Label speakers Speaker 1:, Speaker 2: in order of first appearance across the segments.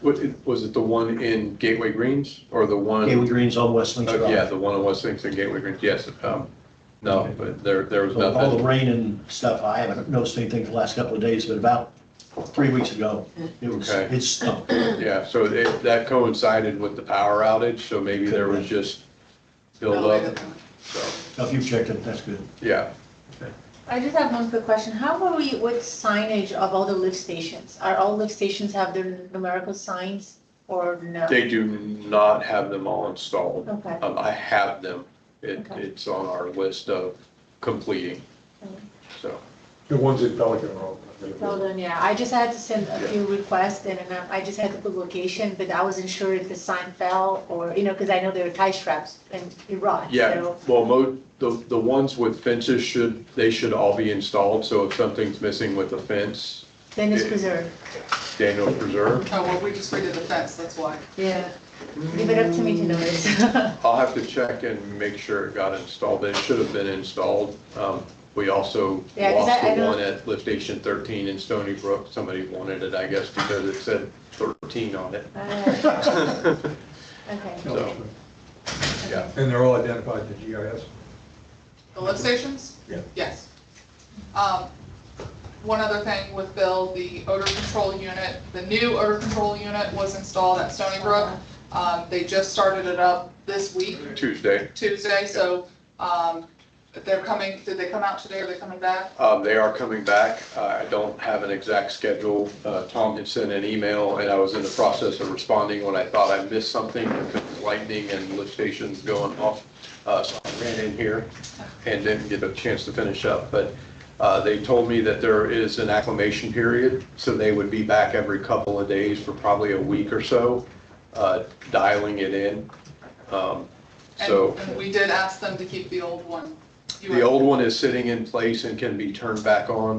Speaker 1: What, it- was it the one in Gateway Greens or the one?
Speaker 2: Gateway Greens on West Links
Speaker 1: Oh,
Speaker 2: Drive.
Speaker 1: Yeah, the one on West Kingston Gateway Greens, yes. um, No, but there, there was
Speaker 2: So with All the
Speaker 1: nothing.
Speaker 2: rain and stuff, I haven't noticed anything for the last couple of days, but about three weeks ago, it was,
Speaker 1: Okay.
Speaker 2: it stunk.
Speaker 1: Yeah, so it, that coincided with the power outage, so maybe there was just
Speaker 3: Oh,
Speaker 1: build up. so,
Speaker 2: Now, If you've checked it, that's good.
Speaker 1: yeah.
Speaker 3: I just have one quick question. How are we with signage of all the lift stations? Are all lift stations have their numerical signs or no?
Speaker 1: They do not have them all installed.
Speaker 3: Okay.
Speaker 1: Um, I have them. It,
Speaker 3: Okay.
Speaker 1: it's on our list of completing,
Speaker 3: Okay.
Speaker 1: so.
Speaker 4: The ones in Pelican are all.
Speaker 3: Well done, yeah. I just had to send a few requests and then I just had to put location, but I wasn't sure if the sign fell or, you know, because I know there are tie straps and it rot.
Speaker 1: Yeah,
Speaker 3: so-
Speaker 1: well, mo, the, the ones with fences should, they should all be installed, so if something's missing with the fence,
Speaker 3: Then it's
Speaker 1: Yeah.
Speaker 3: preserved.
Speaker 1: Daniel Preserve.
Speaker 5: Oh, well, we just redid the fence, that's why.
Speaker 3: Yeah.
Speaker 1: Mm.
Speaker 3: Leave it up to me to notice.
Speaker 1: I'll have to check and make sure it got installed, but it should have been installed. Um, we also
Speaker 3: Yeah, 'cause
Speaker 1: lost
Speaker 3: I- I
Speaker 1: the
Speaker 3: don't-
Speaker 1: one at lift station thirteen in Stony Brook. Somebody wanted it, I guess, because it said thirteen on it.
Speaker 3: Uh, Okay.
Speaker 1: So, yeah.
Speaker 4: And they're all identified to GIS?
Speaker 5: The lift stations?
Speaker 4: Yeah.
Speaker 5: Yes. Um, One other thing with Bill, the odor control unit, the new odor control unit was installed at Stony Brook. Um, They just started it up this week,
Speaker 1: Tuesday,
Speaker 5: Tuesday, so um, they're coming, did they come out today, are they coming back?
Speaker 1: Um, They are coming back. Uh, I don't have an exact schedule. Uh, Tom had sent an email, and I was in the process of responding when I thought I missed something because lightning and lift stations going off. Uh, So I ran in here and didn't get a chance to finish up. But uh, they told me that there is an acclimation period, so they would be back every couple of days for probably a week or so, uh, dialing it in. Um,
Speaker 5: And-
Speaker 1: So.
Speaker 5: And we did ask them to keep the old one. You
Speaker 1: The
Speaker 5: were-
Speaker 1: old one is sitting in place and can be turned back on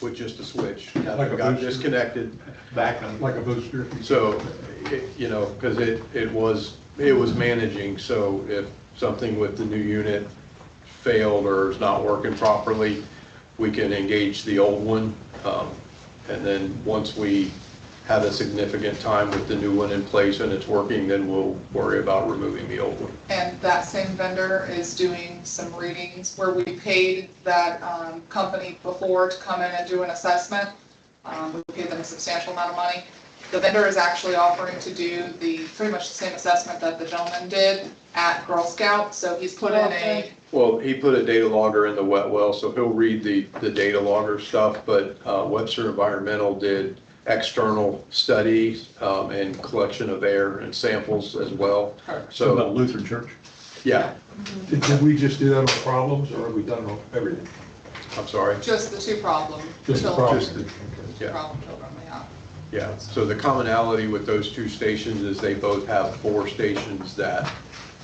Speaker 1: with just a switch.
Speaker 4: Like a
Speaker 1: Got
Speaker 4: booster.
Speaker 1: disconnected.
Speaker 4: Back on. Like a booster.
Speaker 1: So, it- you know, because it, it was, it was managing, so if something with the new unit failed or is not working properly, we can engage the old one. Um, And then, once we have a significant time with the new one in place and it's working, then we'll worry about removing the old one.
Speaker 5: And that same vendor is doing some readings where we paid that um, company before to come in and do an assessment. Um, We paid them a substantial amount of money. The vendor is actually offering to do the, pretty much the same assessment that the gentleman did at Girl Scout. So he's put in a,
Speaker 3: Okay.
Speaker 1: Well, he put a data logger in the wet well, so he'll read the, the data logger stuff, but uh, Webster Environmental did external studies um, and collection of air and samples as well.
Speaker 2: So
Speaker 1: So,
Speaker 2: about Lutheran Church.
Speaker 1: yeah,
Speaker 4: Did did we just do that on problems or have we done it on everything?
Speaker 1: I'm sorry.
Speaker 5: just the two problem
Speaker 4: Just the
Speaker 5: children.
Speaker 4: problems?
Speaker 1: Just the-
Speaker 4: Okay.
Speaker 1: yeah.
Speaker 5: Problem children, yeah.
Speaker 1: Yeah, so the commonality with those two stations is they both have four stations that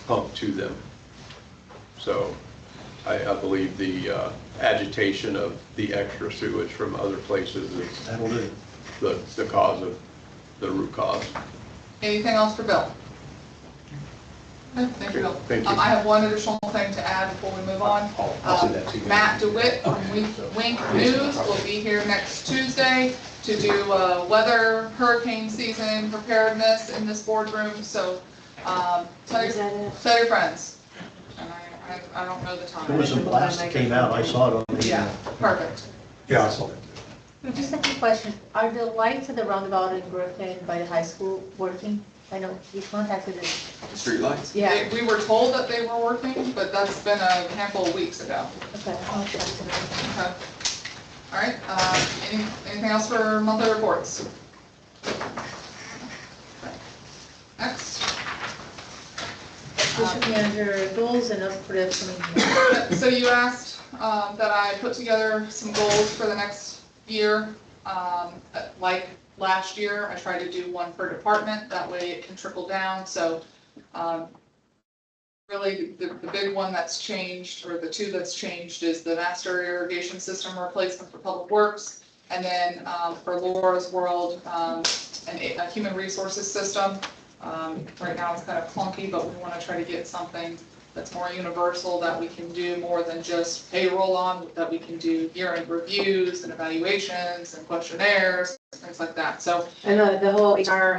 Speaker 1: pump to them. So I, I believe the uh, agitation of the extra sewage from other places is
Speaker 2: That'll do.
Speaker 1: the, the cause of, the root cause.
Speaker 5: Anything else for Bill? No, Thank you, Bill.
Speaker 1: Okay, thank you.
Speaker 5: Um, I have one additional thing to add before we move on. Uh,
Speaker 1: I'll, I'll send that to you.
Speaker 5: Matt DeWitt from Wink Wink News will be here next Tuesday to do uh, weather, hurricane season preparedness in this boardroom, so um, tell
Speaker 3: Is
Speaker 5: your,
Speaker 3: that it?
Speaker 5: tell your friends. And I, I- I don't know the
Speaker 2: There was a
Speaker 5: time.
Speaker 2: blast that came out. I saw it on the. uh,
Speaker 5: Yeah, perfect.
Speaker 4: Yeah, I saw that.
Speaker 3: Just a quick question. Are the lights at the roundabout in Brooklyn by the high school working? I know we contacted us.
Speaker 6: Streetlights?
Speaker 3: Yeah,
Speaker 5: They- We were told that they were working, but that's been a handful of weeks ago.
Speaker 3: okay. I'll check it
Speaker 5: Okay. All right, uh, any- anything else for monthly reports? Next.
Speaker 3: out. This should be under goals and up for the upcoming year.
Speaker 5: So you asked um, that I put together some goals for the next year. Um, uh, Like last year, I tried to do one per department, that way it can trickle down, so um, really, the, the big one that's changed, or the two that's changed, is the master irrigation system replacement for Public Works, and then um, for Laura's World, um, an a a human resources system. Um, Right now, it's kind of clunky, but we want to try to get something that's more universal, that we can do more than just payroll on, that we can do year-end reviews and evaluations and questionnaires, things like that. So
Speaker 7: I know, the whole HR